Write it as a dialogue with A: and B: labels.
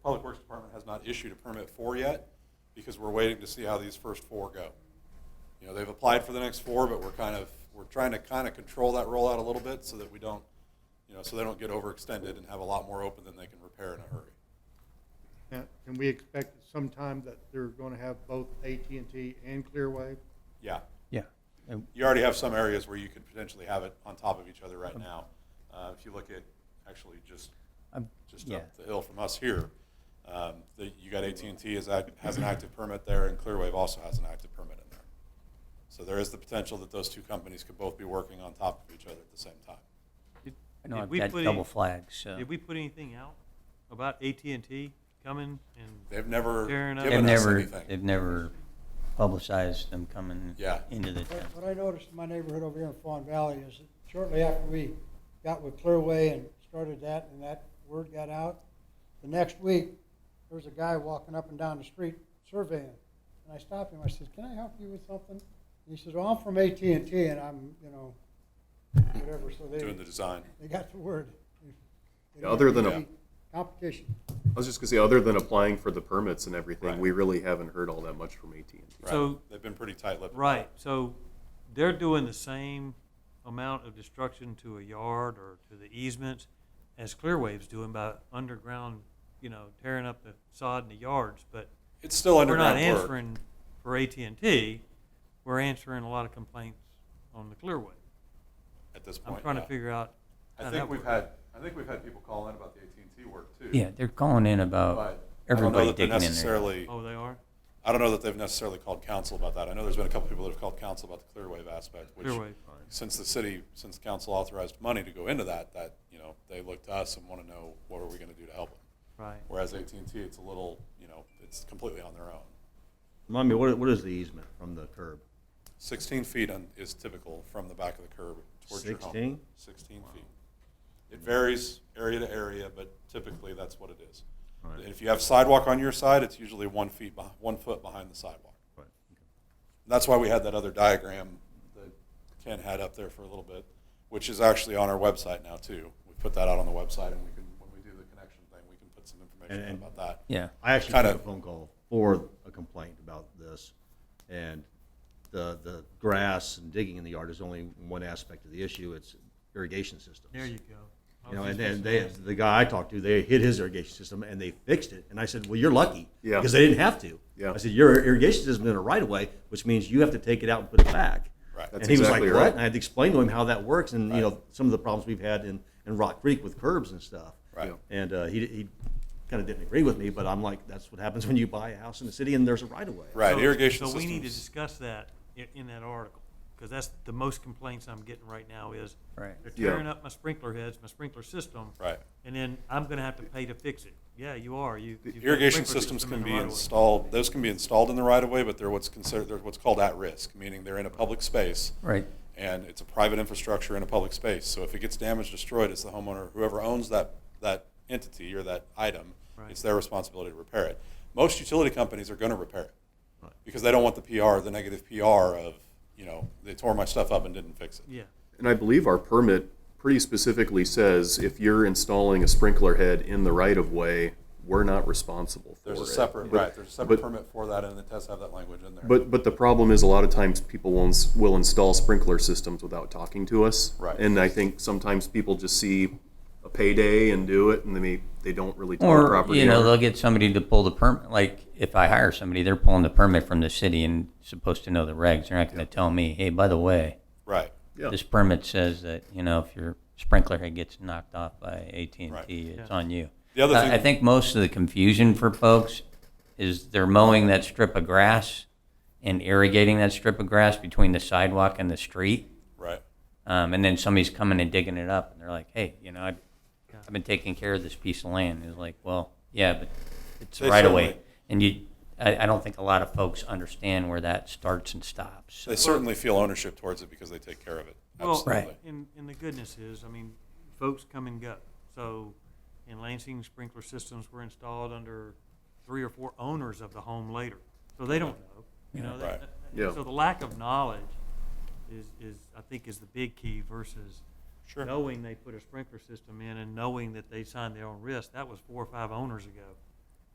A: issued a permit for yet, because we're waiting to see how these first four go. You know, they've applied for the next four, but we're kind of, we're trying to kind of control that rollout a little bit so that we don't, you know, so they don't get overextended and have a lot more open than they can repair in a hurry.
B: Now, Can we expect sometime that they're going to have both AT&T and Clearwave?
A: Yeah.
C: Yeah. And
A: You already have some areas where you could potentially have it on top of each other right now. Uh, if you look at actually just
C: I'm-
A: just
C: yeah.
A: up the hill from us here. Um, the, you got AT&T is act, has an active permit there, and Clearwave also has an active permit in there. So there is the potential that those two companies could both be working on top of each other at the same time.
D: Did-
C: I know
D: did
C: I've
D: we
C: got
D: put
C: double
D: any-
C: flags, so.
D: Did we put anything out about AT&T coming and,
A: They've never
D: Fair enough.
C: They've
A: given us
C: never,
A: anything.
C: they've never publicized them coming
A: Yeah.
C: into the
E: What
C: town.
E: what I noticed in my neighborhood over here in Fawn Valley is that shortly after we got with Clearway and started that, and that word got out, the next week, there was a guy walking up and down the street surveying. And I stopped him, I said, can I help you with something? And he says, well, I'm from AT&T and I'm, you know, whatever, so they,
A: Doing the design.
E: they got the word. They
F: Yeah, other than a-
E: didn't Competition.
F: I was just gonna say, other than applying for the permits and everything,
A: Right.
F: we really haven't heard all that much from AT&T.
A: Right.
D: So-
A: they've been pretty tight-lipped.
D: right, so they're doing the same amount of destruction to a yard or to the easements as Clearwave's doing by underground, you know, tearing up the sod in the yards, but
A: It's still
D: we're not
A: underground work.
D: answering for AT&T, we're answering a lot of complaints on the Clearway.
A: at this point.
D: I'm trying to
A: yeah.
D: figure out
A: I
D: how that
A: think we've
D: works.
A: had I think we've had people call in about the AT&T work too.
C: Yeah, they're calling in about
A: But I don't know
C: everybody
A: that they're
C: Oh. digging in there.
A: necessarily.
D: Oh, they are?
A: I don't know that they've necessarily called council about that. I know there's been a couple people that have called council about the Clearwave aspect, which
D: Clearwave.
A: since the city, since council authorized money to go into that, that, you know, they look to us and want to know what are we going to do to help them.
D: Right.
A: Whereas AT&T, it's a little, you know, it's completely on their own.
G: Remind me, what, what is the easement from the curb?
A: 16 feet on- is typical from the back of the curb towards your home.
G: 16?
A: 16 feet. It varies area to area, but typically that's what it is.
G: Right.
A: And If you have sidewalk on your side, it's usually one feet, beh- one foot behind the sidewalk.
G: Right,
A: That's why we had that other diagram that Ken had up there for a little bit, which is actually on our website now too. We put that out on the website and we can, when we do the connection thing, we can put some information
G: And-
A: out about that.
C: Yeah.
G: I actually
A: Kinda-
G: got a phone call for a complaint about this, and the, the grass and digging in the yard is only one aspect of the issue, it's irrigation systems.
D: There you go. I was
G: You know,
D: just
G: and
D: fixing
G: then they,
D: to ask.
G: the guy I talked to, they hit his irrigation system and they fixed it, and I said, well, you're lucky.
F: Yeah.
G: Because they didn't have to.
F: Yeah.
G: I said, your irrigation system's in a right of way, which means you have to take it out and put it back.
A: Right.
G: And
F: That's
G: he was like,
F: exactly
G: "What?"
F: right.
G: And I had to explain to him how that works, and you know some of the problems we've had in, in Rock Creek with curbs and stuff.
A: Right.
G: And uh, he, he kind of didn't agree with me, but I'm like, that's what happens when you buy a house in the city and there's a right of way.
A: Right,
D: So-
A: irrigation
D: So we need to
A: systems.
D: discuss that i- in that article, because that's the most complaints I'm getting right now is,
C: Right.
D: they're
F: Yeah.
D: tearing up my sprinkler heads, my sprinkler system.
A: Right.
D: And then I'm gonna have to pay to fix it. Yeah, you are, you.
A: The
D: you've got a
A: Irrigation
D: sprinkler
A: systems
D: system
A: can
D: in the
A: be
D: right of way.
A: installed, those can be installed in the right of way, but they're what's considered, they're what's called at risk, meaning they're in a public space.
C: Right.
A: And it's a private infrastructure in a public space. So if it gets damaged, destroyed, it's the homeowner, whoever owns that, that entity or that item,
D: Right.
A: it's their responsibility to repair it. Most utility companies are gonna repair it. Because they don't want the PR, the negative PR of, you know, they tore my stuff up and didn't fix it.
D: Yeah,
F: And I believe our permit pretty specifically says if you're installing a sprinkler head in the right of way, we're not responsible for it.
A: There's a separate,
F: But-
A: right, there's a separate
F: but-
A: permit for that and the tests have that language in there.
F: But, but the problem is a lot of times people will, ins- will install sprinkler systems without talking to us.
A: Right.
F: And I think sometimes people just see a payday and do it and they may, they don't really tell the
C: Or,
F: property
C: you know,
F: owner.
C: they'll get somebody to pull the permit, like, if I hire somebody, they're pulling the permit from the city and supposed to know the regs. They're not gonna tell me, hey, by the way,
A: Right,
F: Yeah.
C: this permit says that, you know, if your sprinkler head gets knocked off by
A: Right.
C: AT&T, it's
D: Yeah.
C: on you.
A: The other
C: Uh,
A: thing-
C: I think most of the confusion for folks is they're mowing that strip of grass and irrigating that strip of grass between the sidewalk and the street.
A: right.
C: Um, and then somebody's coming and digging it up, and they're like, "Hey, you know, I've, I've been taking care of this piece of land." It's like, "Well, yeah, but it's
A: They
C: right away."
A: certainly-
C: And you, I, I don't think a lot of folks understand where that starts and stops.
A: They certainly feel ownership towards it because they take care of it.
D: well,
A: Absolutely.
C: Right.
D: and, and the goodness is, I mean, folks come and go. So in Lansing, sprinkler systems were installed under three or four owners of the home later, so they don't know, you know.
A: Right.
D: that-
F: Yeah.
D: So the lack of knowledge is, is, I think, is the big key versus
A: Sure.
D: knowing they put a sprinkler system in and knowing that they signed their own risk, that was four or five owners ago.